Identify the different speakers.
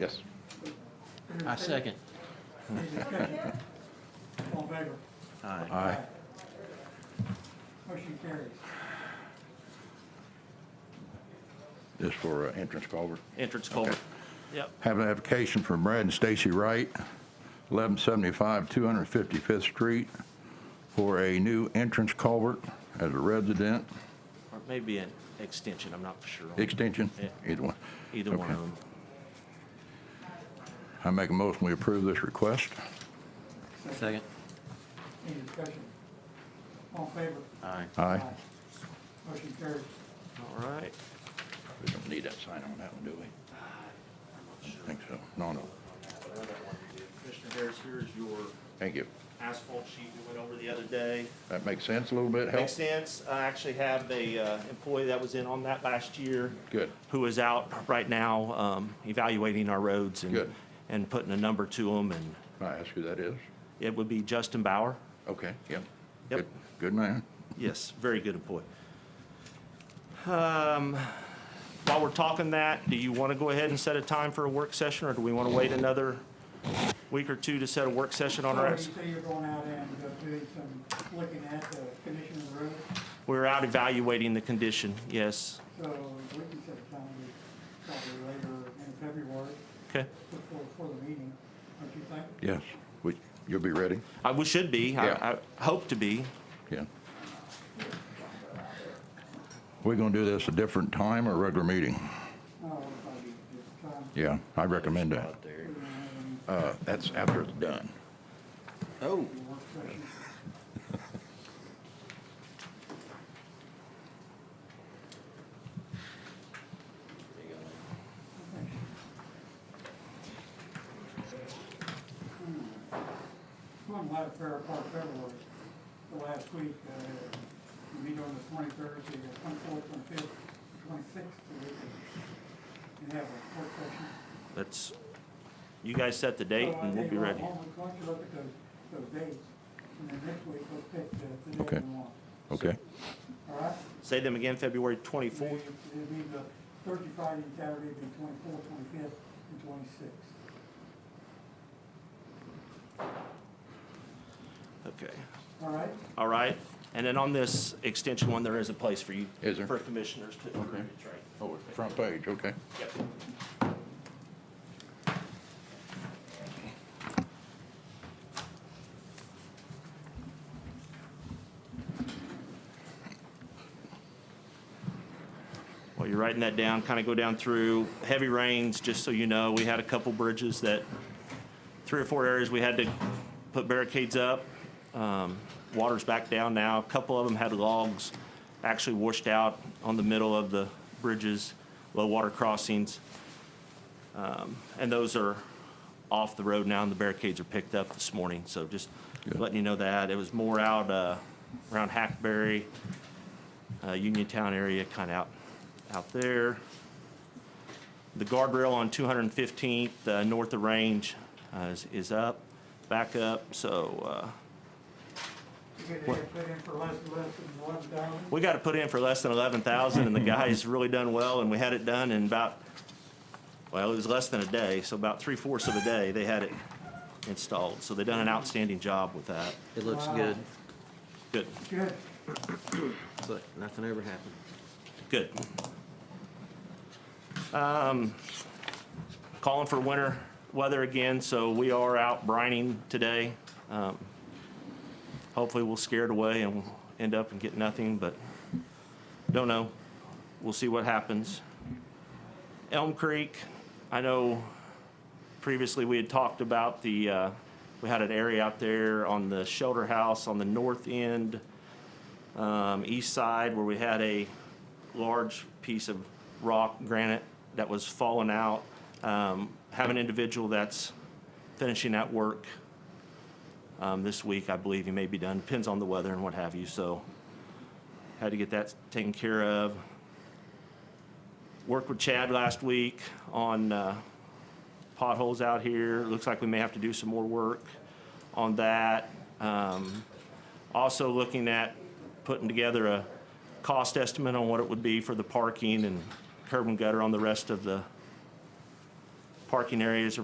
Speaker 1: Yes.
Speaker 2: I second.
Speaker 3: Any discussion? All in favor?
Speaker 2: Aye.
Speaker 1: Aye.
Speaker 3: Motion carries.
Speaker 1: This for uh, entrance culvert.
Speaker 2: Entrance culvert.
Speaker 1: Okay.
Speaker 2: Yep.
Speaker 1: Have an application from Brad and Stacy Wright, 1175 255th Street, for a new entrance culvert as a resident
Speaker 2: Or maybe an extension, I'm not for sure. on
Speaker 1: extension,
Speaker 2: Yeah.
Speaker 1: either one.
Speaker 2: Either one
Speaker 1: Okay.
Speaker 2: of them.
Speaker 1: I make a motion, we approve this request.
Speaker 2: Second.
Speaker 3: Any discussion? All in favor?
Speaker 2: Aye.
Speaker 1: Aye.
Speaker 3: Motion carries.
Speaker 2: All right.
Speaker 1: We don't need that sign on that one, do we? I don't think so. No, no.
Speaker 4: Commissioner Harris, here's your
Speaker 1: Thank you.
Speaker 4: asphalt sheet we went over the other day.
Speaker 1: That makes sense a little bit, help?
Speaker 4: Makes sense. I actually have a uh, employee that was in on that last year.
Speaker 1: Good.
Speaker 4: Who is out right now um, evaluating our roads and.
Speaker 1: Good.
Speaker 4: And putting a number to them, and
Speaker 1: Can I ask who that is?
Speaker 4: it would be Justin Bauer.
Speaker 1: Okay, yep.
Speaker 4: Yep.
Speaker 1: Good- Good man.
Speaker 4: Yes, very good employee. Um, While we're talking that, do you want to go ahead and set a time for a work session, or do we want to wait another week or two to set a work session on our?
Speaker 3: So you say you're going out and uh, doing some, looking at the condition of the road,
Speaker 4: We're out evaluating the condition, yes.
Speaker 3: so we can set a time, to probably later in February,
Speaker 4: Okay.
Speaker 3: before, before the meeting, don't you think?
Speaker 1: Yes. We- You'll be ready?
Speaker 4: I, Uh, we should be. I,
Speaker 1: Yeah.
Speaker 4: I hope to be.
Speaker 1: Yeah. We're gonna do this a different time or regular meeting?
Speaker 3: Oh, it'll probably be just time.
Speaker 1: Yeah, I recommend that.
Speaker 3: We're gonna have a
Speaker 1: Uh, that's after it's done.
Speaker 2: Oh.
Speaker 3: work session. One light fair part of February, the last week, uh, we meet on the twenty-third, the twenty-fourth, twenty-fifth, twenty-sixth, so we can- can have a work session.
Speaker 4: Let's, you guys set the date and we'll be ready.
Speaker 3: So I think, well, why don't you look at those, those dates, and then next week, let's pick the, the
Speaker 1: Okay.
Speaker 3: day we want,
Speaker 1: Okay?
Speaker 3: all right?
Speaker 4: Say them again, February 24th.
Speaker 3: It'll be the Thursday, Friday, and Saturday, the twenty-fourth, twenty-fifth, and twenty-sixth.
Speaker 4: Okay.
Speaker 3: All right?
Speaker 4: All right. And then on this extension one, there is a place for you.
Speaker 1: Is there?
Speaker 4: For commissioners to.
Speaker 1: Okay.
Speaker 4: That's right.
Speaker 1: Oh, it's front page, okay.
Speaker 4: Yep. While you're writing that down, kind of go down through heavy rains, just so you know, we had a couple bridges that, three or four areas we had to put barricades up. Um, Water's back down now. A couple of them had logs actually washed out on the middle of the bridges, low water crossings. Um, And those are off the road now, and the barricades are picked up this morning. So just
Speaker 1: Good.
Speaker 4: letting you know that. It was more out uh, around Hackberry, uh, Uniontown area, kind of out, out there. The guardrail on 215th, uh, north of range, uh, is, is up, back up, so, uh,
Speaker 3: You could have put in for less, less than one thousand.
Speaker 4: we got to put in for less than 11,000, and the guy's really done well, and we had it done in about, well, it was less than a day, so about three-fourths of a day, they had it installed, so they done an outstanding job with that.
Speaker 2: It looks good,
Speaker 4: Good,
Speaker 3: Good.
Speaker 2: but nothing ever happened.
Speaker 4: good. Um, Calling for winter weather again, so we are out brining today. Um, Hopefully, we'll scare it away and we'll end up and get nothing, but don't know. We'll see what happens. Elm Creek, I know previously we had talked about the, uh, we had an area out there on the shelter house on the north end, um, east side, where we had a large piece of rock granite that was falling out. Um, Have an individual that's finishing that work um, this week, I believe he may be done, depends on the weather and what have you, so had to get that taken care of. Worked with Chad last week on uh, potholes out here. Looks like we may have to do some more work on that. Um, Also looking at putting together a cost estimate on what it would be for the parking and curb and gutter on the rest of the parking areas